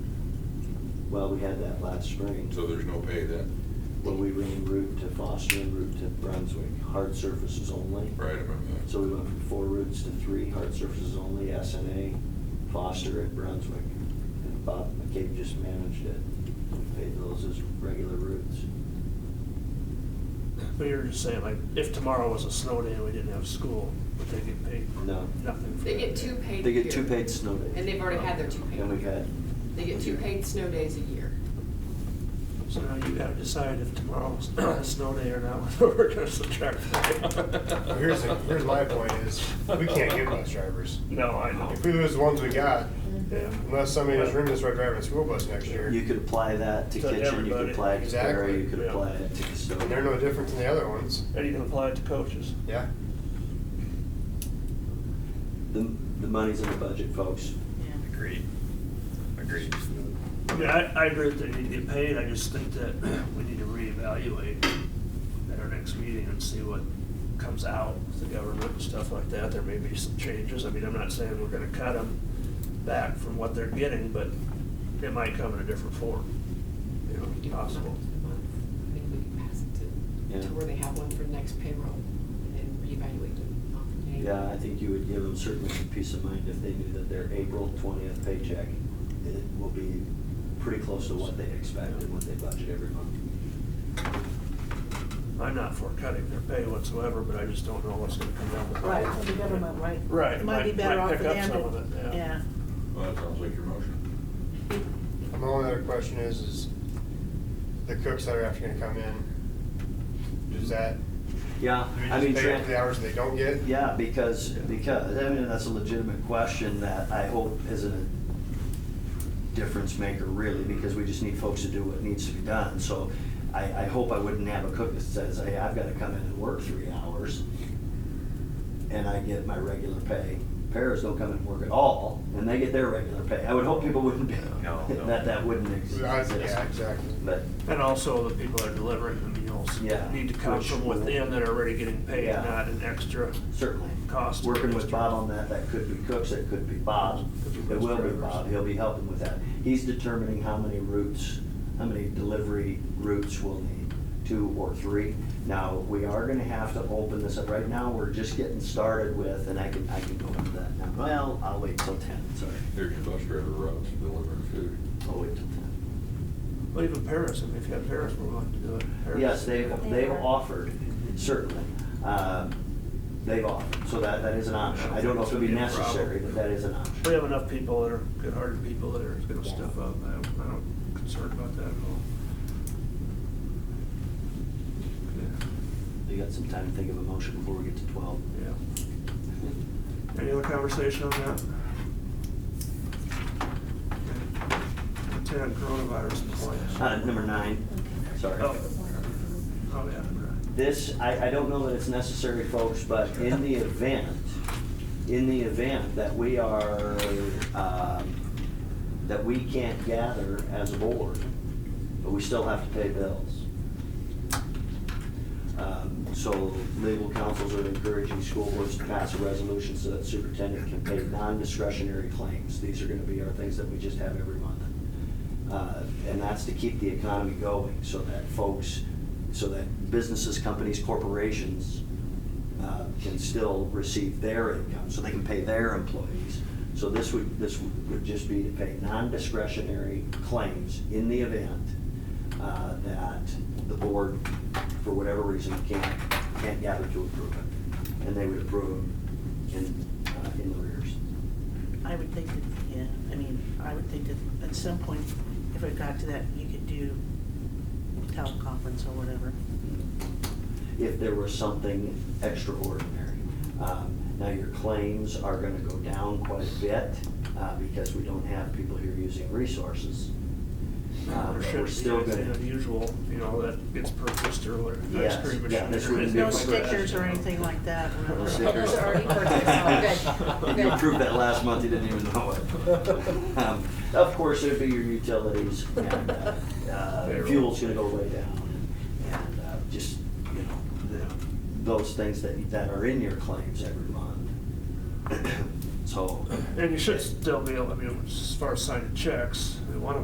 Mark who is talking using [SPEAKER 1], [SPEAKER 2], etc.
[SPEAKER 1] Well, we had that last spring,
[SPEAKER 2] So there's no pay then,
[SPEAKER 1] when we ran route to Foster and route to Brunswick, hard surfaces only.
[SPEAKER 2] right about that?
[SPEAKER 1] So we went from four routes to three, hard surfaces only, SNA, Foster and Brunswick. And Bob McCabe just managed it. We paid those as regular routes.
[SPEAKER 3] But you were just saying, like, if tomorrow was a snow day and we didn't have school, would they get paid
[SPEAKER 1] No.
[SPEAKER 3] nothing for that?
[SPEAKER 4] They get two
[SPEAKER 3] day?
[SPEAKER 4] paid.
[SPEAKER 1] They get two
[SPEAKER 4] here.
[SPEAKER 1] paid snow days.
[SPEAKER 4] And they've already had their two paid.
[SPEAKER 1] And we've had,
[SPEAKER 4] They get two paid snow days a year.
[SPEAKER 3] So now you gotta decide if tomorrow's a snow day or not, whether we're gonna subtract.
[SPEAKER 5] Well, Here's, the- here's my point is, we can't get bus drivers.
[SPEAKER 3] No, I know.
[SPEAKER 5] If we lose the ones we got,
[SPEAKER 3] Yeah.
[SPEAKER 5] unless somebody in this room that's right driving a school bus next year,
[SPEAKER 1] you could apply that to
[SPEAKER 3] To
[SPEAKER 1] kitchen, you could
[SPEAKER 3] everybody.
[SPEAKER 1] apply it to Perry, you
[SPEAKER 5] Exactly.
[SPEAKER 1] could
[SPEAKER 3] Yeah.
[SPEAKER 1] apply it to custodial.
[SPEAKER 5] and they're no different than the other ones.
[SPEAKER 3] And you can apply it to coaches.
[SPEAKER 5] Yeah.
[SPEAKER 1] The, the money's in the budget, folks.
[SPEAKER 6] Agreed. Agreed.
[SPEAKER 3] Yeah, I, I agree that they need to get paid, I just think that we need to reevaluate at our next meeting and see what comes out with the government and stuff like that. There may be some changes, I mean, I'm not saying we're gonna cut them back from what they're getting, but it might come in a different form. You know, it's possible.
[SPEAKER 4] I think we can pass it to,
[SPEAKER 1] Yeah.
[SPEAKER 4] to where they have one for next payroll and then reevaluate it on the day.
[SPEAKER 1] Yeah, I think you would give them certainly some peace of mind if they knew that their April twentieth paycheck, it will be pretty close to what they expect and what they budget every month.
[SPEAKER 3] I'm not for cutting their pay whatsoever, but I just don't know what's gonna come out. with it.
[SPEAKER 7] Right, for the government, right?
[SPEAKER 3] Right,
[SPEAKER 7] It might be
[SPEAKER 3] might-
[SPEAKER 7] better
[SPEAKER 3] might
[SPEAKER 7] off for
[SPEAKER 3] pick up
[SPEAKER 7] them
[SPEAKER 3] some of it,
[SPEAKER 7] to,
[SPEAKER 3] yeah.
[SPEAKER 7] yeah.
[SPEAKER 2] Well, that sounds like your motion.
[SPEAKER 5] My only other question is, is the cooks that are actually gonna come in, is that,
[SPEAKER 1] Yeah,
[SPEAKER 5] do we
[SPEAKER 1] I mean,
[SPEAKER 5] just pay them
[SPEAKER 1] Trent,
[SPEAKER 5] for the hours they don't get?
[SPEAKER 1] yeah, because, because, I mean, that's a legitimate question that I hope isn't a difference maker really, because we just need folks to do what needs to be done. So I, I hope I wouldn't have a cook that says, hey, I've gotta come in and work three hours and I get my regular pay. Paras don't come in and work at all and they get their regular pay. I would hope people wouldn't do
[SPEAKER 6] No, no.
[SPEAKER 1] that, that wouldn't exist.
[SPEAKER 5] I- Yeah, exactly.
[SPEAKER 1] But
[SPEAKER 3] And also the people that are delivering the meals.
[SPEAKER 1] Yeah.
[SPEAKER 3] Need to come
[SPEAKER 1] Which-
[SPEAKER 3] from within that are already getting paid,
[SPEAKER 1] Yeah.
[SPEAKER 3] not an extra
[SPEAKER 1] certainly.
[SPEAKER 3] cost.
[SPEAKER 1] Working with Bob on that, that could be Cooks, it could be Bob. It will be Bob, he'll be helping with that. He's determining how many routes, how many delivery routes we'll need, two or three. Now, we are gonna have to open this up, right now, we're just getting started with, and I can, I can go into that now. Well, I'll wait till ten, sorry,
[SPEAKER 2] There's your bus driver routes delivering food.
[SPEAKER 1] I'll wait till ten.
[SPEAKER 3] Well, even Paris, I mean, if you have Paris, we're willing to do it. Paris.
[SPEAKER 1] Yes, they've,
[SPEAKER 7] They
[SPEAKER 1] they've
[SPEAKER 7] are.
[SPEAKER 1] offered, certainly. Um, They've offered, so that, that is an option. I don't know if it'll be necessary, but that is an option.
[SPEAKER 3] We have enough people that are good-hearted people that are gonna step up. I don't, I don't concerned about that at all.
[SPEAKER 1] You got some time to think of a motion before we get to twelve?
[SPEAKER 3] Yeah, Yeah. Any other conversation on that? Ten, coronavirus employees.
[SPEAKER 1] Uh, number nine, sorry.
[SPEAKER 3] Oh. Oh, yeah, right.
[SPEAKER 1] This, I, I don't know that it's necessary, folks, but in the event, in the event that we are, um, that we can't gather as a board, but we still have to pay bills. Um, So legal counsels are encouraging school boards to pass a resolution so that superintendent can pay non-discretionary claims. These are gonna be our things that we just have every month. Uh, And that's to keep the economy going, so that folks, so that businesses, companies, corporations uh, can still receive their income, so they can pay their employees. So this would, this would just be to pay non-discretionary claims in the event uh, that the board, for whatever reason, can't, can't gather to approve it. And they would approve them in, uh, in arrears.
[SPEAKER 7] I would think that, yeah, I mean, I would think that at some point, if it got to that, you could do teleconference or whatever.
[SPEAKER 1] If there was something extraordinary. Um, Now, your claims are gonna go down quite a bit, uh, because we don't have people here using resources. Uh,
[SPEAKER 3] There
[SPEAKER 1] but
[SPEAKER 3] shouldn't
[SPEAKER 1] we're
[SPEAKER 3] be
[SPEAKER 1] still
[SPEAKER 3] anything
[SPEAKER 1] gonna-
[SPEAKER 3] Unusual, you know, that gets purchased or whatever.
[SPEAKER 1] Yes,
[SPEAKER 3] ice cream
[SPEAKER 1] yeah,
[SPEAKER 3] machine
[SPEAKER 1] this
[SPEAKER 3] or-
[SPEAKER 1] wouldn't be a
[SPEAKER 7] No
[SPEAKER 1] Good.
[SPEAKER 7] stickers or anything like that.
[SPEAKER 3] No
[SPEAKER 1] stickers.
[SPEAKER 7] Those are already purchased.
[SPEAKER 4] Oh, good.
[SPEAKER 1] You approved that last month, you didn't even know it. Um, Of course, it'd be your utilities and uh, uh, fuel's gonna go way down. And uh, just, you know, the- those things that, that are in your claims every month. So.
[SPEAKER 3] And you should still be able, I mean, as far as signing checks, one of